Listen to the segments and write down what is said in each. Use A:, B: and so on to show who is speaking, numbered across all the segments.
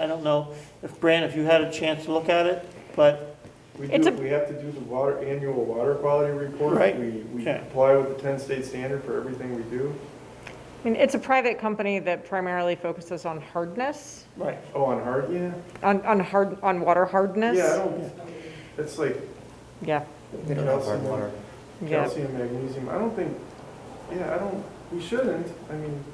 A: I don't know if, Bran, if you had a chance to look at it, but,
B: We
C: It's
B: do,
C: a-
B: we have to do the water, annual water quality report.
A: Right,
B: We, we
A: okay.
B: comply with the ten state standard for everything we do.
C: I mean, it's a private company that primarily focuses on hardness,
A: right,
B: Oh, on hard, yeah?
C: on, on hard, on water hardness.
B: Yeah, I don't, it's like
C: Yeah,
D: They don't have hard
B: calcium,
D: water.
C: yeah.
B: calcium, magnesium, I don't think, yeah, I don't, we shouldn't, I mean.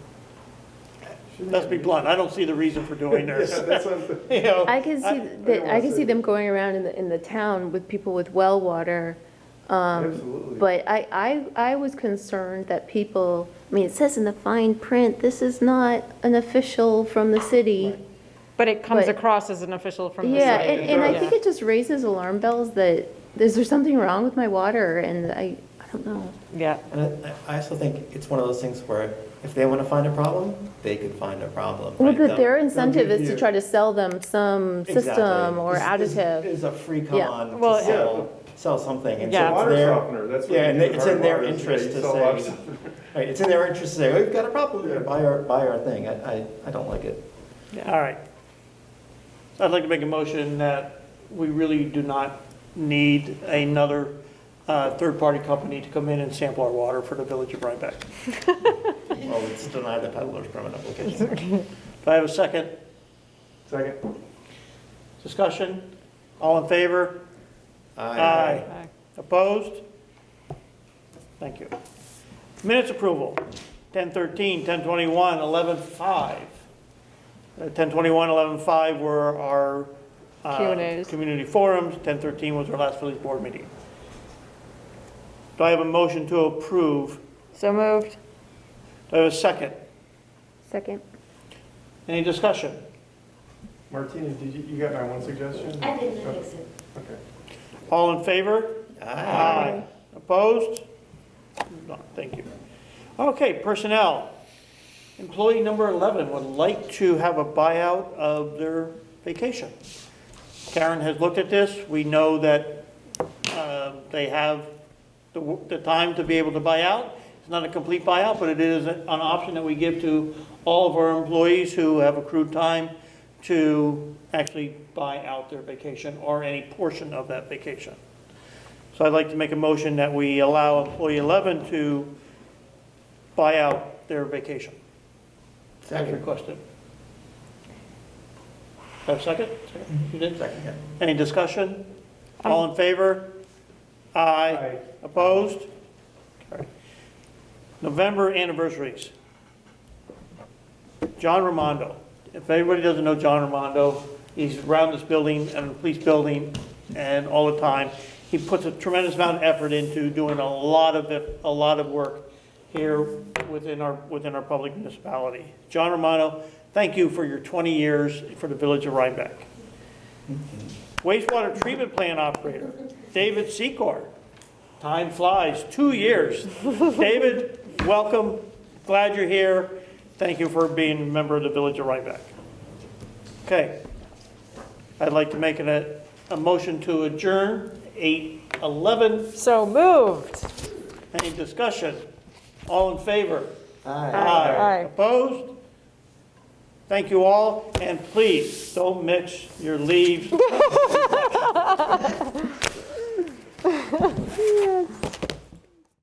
B: shouldn't
A: let's be
B: we?
A: blunt, I don't see the reason for doing
B: Yeah,
A: this.
B: that's what I'm-
A: You know,
E: I can
A: I- I
E: see
B: don't
E: that,
B: wanna
E: I can
B: say
E: see
B: that.
E: them going around in the, in the town with people with well water. um,
B: Absolutely.
E: But I, I, I was concerned that people, I mean, it says in the fine print, this is not an official from the city.
C: But it comes
E: But-
C: across as an official from the
E: Yeah,
C: city.
E: and, and I think
C: Yeah.
E: it just raises alarm bells that, is there something wrong with my water? And I, I don't know.
C: Yeah,
D: And I- I also think it's one of those things where if they want to find a problem, they could find a problem.
E: Well,
D: right?
E: but their
D: They'll-
E: incentive is
B: you-
E: to try to sell them some
D: Exactly.
E: system or
D: This- this
E: additive.
D: is a free
E: Yeah.
D: come-on
C: Well,
D: to sell, sell something. and so
C: Yeah.
B: It's a
D: it's
B: water
D: their-
B: softener, that's what.
D: Yeah,
B: you
D: and
B: do
D: it's
B: with hard
D: in their
B: water, is
D: interest
B: you
D: to
B: sell water
D: say-
B: softener.
D: Right, it's in their interest to say, we've got a problem here,
B: Yeah.
D: buy our, buy our thing. I, I, I don't like it.
A: All right. I'd like to make a motion that we really do not need another uh, third-party company to come in and sample our water for the village of Rhinebeck.
D: Well, it's deny the peddler's permit application.
A: Do I have a second
B: Second,
A: discussion? All in favor?
D: I-
C: Aye.
A: Opposed? Thank you. Minutes approval, 10:13, 10:21, 11:05. Uh, 10:21, 11:05 were our uh,
C: Q and As.
A: community forums, 10:13 was our last village board meeting. Do I have a motion to approve?
C: so moved.
A: Do I have a second?
E: Second.
A: Any discussion?
B: Martina, did you, you got my one suggestion?
F: I didn't notice it.
B: Okay.
A: All in favor?
D: Aye.
A: Opposed? No, thank you. Okay, personnel. Employee number 11 would like to have a buyout of their vacation. Karen has looked at this. We know that uh, they have the w- the time to be able to buy out. It's not a complete buyout, but it is an option that we give to all of our employees who have accrued time to actually buy out their vacation or any portion of that vacation. So I'd like to make a motion that we allow employee 11 to buy out their vacation, as
D: Second,
A: requested. Have a second? You did?
D: second, yeah.
A: Any discussion? All in favor? Aye.
B: Aye.
A: Opposed? Carried. November anniversaries. John Ramondo. If anybody doesn't know John Ramondo, he's around this building and the police building and all the time. He puts a tremendous amount of effort into doing a lot of, it- a lot of work here within our, within our public municipality. John Ramondo, thank you for your 20 years for the village of Rhinebeck. Wastewater treatment plant operator, David Secor. Time flies, two years. David, welcome, glad you're here. Thank you for being a member of the Village of Rhinebeck. Okay, I'd like to make an- a, a motion to adjourn, 8:11.
C: So moved.
A: Any discussion? All in favor?
D: Aye.
C: Aye.
A: Opposed? Thank you all, and please, don't mix your leaves